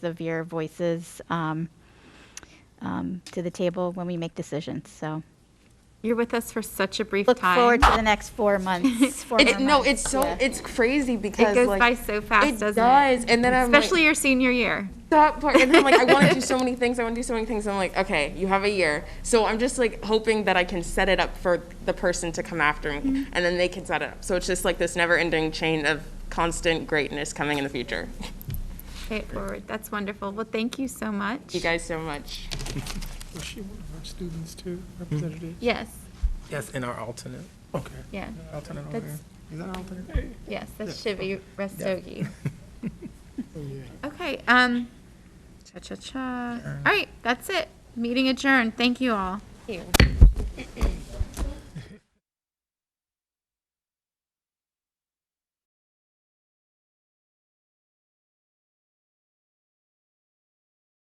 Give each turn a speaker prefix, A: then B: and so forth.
A: of your voices um, um, to the table when we make decisions. So
B: You're with us for such a brief
A: look
B: time.
A: forward to the next four months. Four more
C: It, no,
A: months.
C: it's so
A: Yeah.
C: it's crazy because
B: goes
C: like,
B: by so fast,
C: it
B: doesn't it?
C: does. And then I'm
B: Especially
C: like,
B: your senior year.
C: that part, and then I'm like, I want to do so many things. I want to do so many things. I'm like, okay, you have a year. So I'm just like hoping that I can set it up for the person to come after me,
B: Mm-hmm.
C: and then they can set it up. So it's just like this never-ending chain of constant greatness coming in the future.
B: Pay it forward. That's wonderful. Well, thank you so much.
C: You guys so much.
D: Was she one of our students too, representative?
B: Yes,
E: Mm-hmm. Yes, and our alternate. Okay.
B: yeah,
E: Alternate over
B: That's-
E: here. Is that an alternate?
B: yes, that's Shivy Restogi.
D: Oh, yeah.
B: Okay, um, cha-cha-cha. All right, that's it. Meeting adjourned. Thank you all.